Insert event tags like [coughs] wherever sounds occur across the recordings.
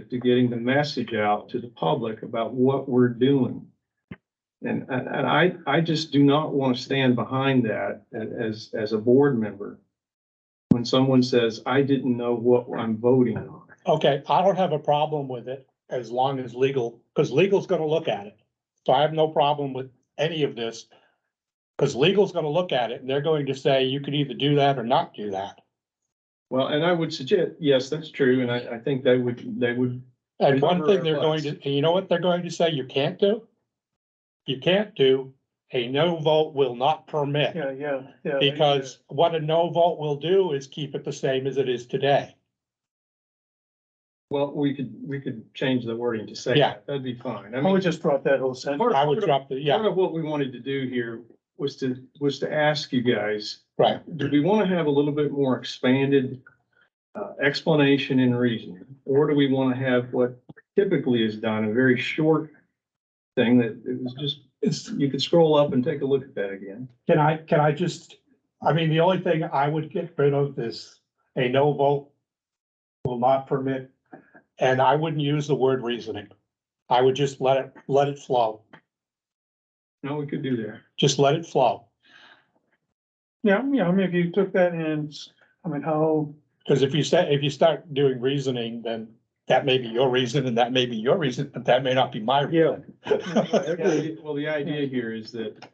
to getting the message out to the public about what we're doing. And, and and I, I just do not want to stand behind that a- as, as a board member. When someone says, I didn't know what I'm voting on. Okay, I don't have a problem with it as long as legal, because legal's gonna look at it. So I have no problem with any of this. Because legal's gonna look at it and they're going to say you could either do that or not do that. Well, and I would suggest, yes, that's true, and I, I think they would, they would, And one Cover thing they're our going to, butts. and you know what they're going to say you can't do? You can't do, a no vote will not permit. Yeah, yeah, yeah. they- Because what a no vote will do is keep it the same as it is today. well, we could, we could change the wording to say Yeah. that, that'd be fine. I I mean, would just drop that whole sentence. Part I would drop the, yeah, Part of what we wanted to do here was to, was to ask you guys, right, do we want to have a little bit more expanded uh, explanation and reasoning? Or do we want to have what typically is done, a very short thing that it was just, you could scroll up and take a look at that again. Can I, can I just, I mean, the only thing I would get rid of is a no vote will not permit, and I wouldn't use the word reasoning. I would just let it, let it flow, No, we could do that. just let it flow. Yeah, yeah, I mean, if you took that and, s- I mean, how, Because if you say, if you start doing reasoning, then that may be your reason and that may be your reason, but that may not be my reason. Well, the idea here is that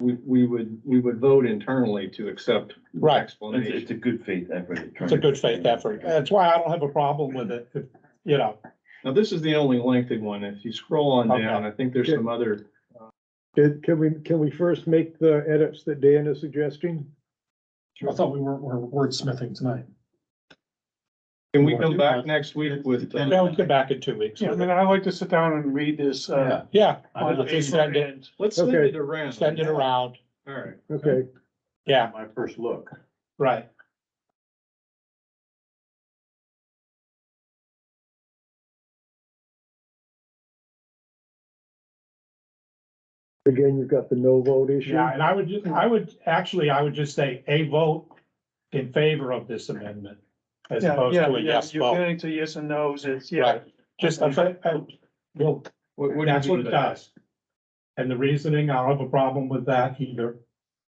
we, we would, we would vote internally to accept the Right. It's, explanation. it's a good faith effort. at trying It's a to- good faith effort. That's why I don't have a problem with it, if- you know. Now, this is the only lengthy one. If you scroll on Okay. down, I think there's some other, Did, can we, can we first make the edits that Dan is suggesting? I thought we were, were wordsmithing tonight. can we come back next week with? uh, Now we come back in two weeks. yeah, I mean, I like to sit down and read this, uh. Yeah, I on don't think paper so. and- Let's send Okay. it around. send it around. All right. Okay, Yeah, My first look. right. again, you've got the no vote issue. Yeah, and I would, ju- I would, actually, I would just say a vote in favor of this amendment as Yeah, opposed yeah, to a yeah, yes You're vote. getting to yes and no's, it's, yeah, Right, just, I, I, I- well, What- what do you that's do what it with that? does. And the reasoning, I don't have a problem with that either.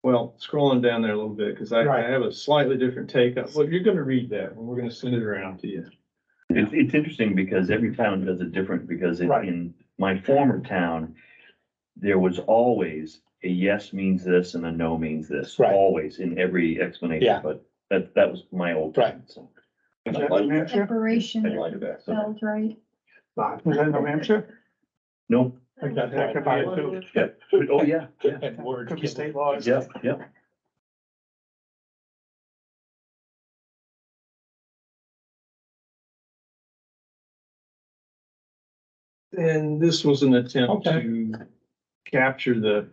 Well, scrolling down there a little bit, because I, I Right. have a slightly different take. on- Well, you're gonna read that, and we're gonna send it around to you. It's, it's interesting because every town does it different, because in, Right. in my former town, there was always a yes means this and a no means this, Right. always in every explanation, Yeah. but that, that was my old. Right. town, so was I that New like- Hampshire? I Operation like that, so. spelled right. Was that New Hampshire? No, I think that's That could be right. it too. yeah, oh, yeah, [laughs] yeah, And words. Could be given. state laws. yeah, yeah. [coughs] And this was an attempt Okay. to capture the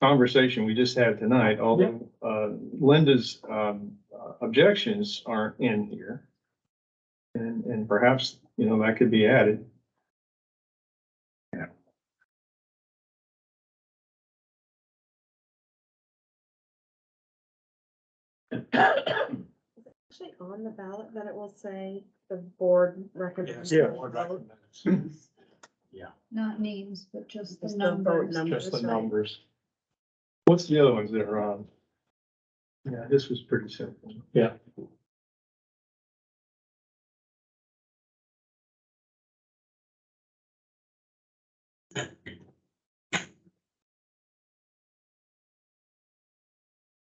conversation we just had tonight, although, uh, Linda's, um, uh, objections aren't in here. And, and perhaps, you know, that could be added. Actually, on the ballot, that it will say the board Yes, recommends. the board recommends. Not names, but just the Just the vote numbers. numbers, Just the right? numbers. What's the other ones that are on? Yeah, this was pretty simple.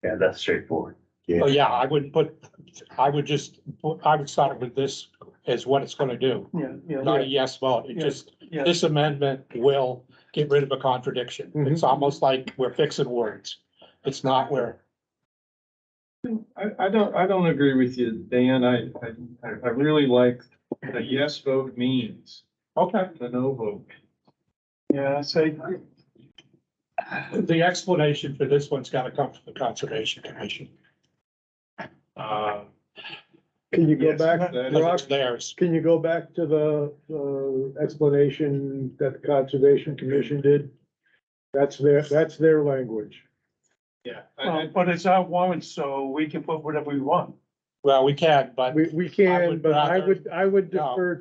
Yeah, that's straightforward. Oh, yeah, I would put, I would just, put- I would start with this as what it's gonna do, Yeah, yeah, not a yeah, yes vote. It Yeah. just yeah. this amendment will get rid of a contradiction. Mm-hmm. It's almost like we're fixing words. It's not where, I, I don't, I don't agree with you, Dan. I, I- I, I really like the yes vote means, okay, the no vote. Yeah, I say, the explanation for this one's gotta come from the Conservation Commission. Uh, Can you go Yes, back, that is- because Rock, it's theirs. can you go back to the, uh, explanation that the Conservation Commission did? That's their, that's their language. Yeah. I- well, I- but it's our warrant, so we can put whatever we want. Well, we can, but We, we I can, would but I rather- would, I would No. defer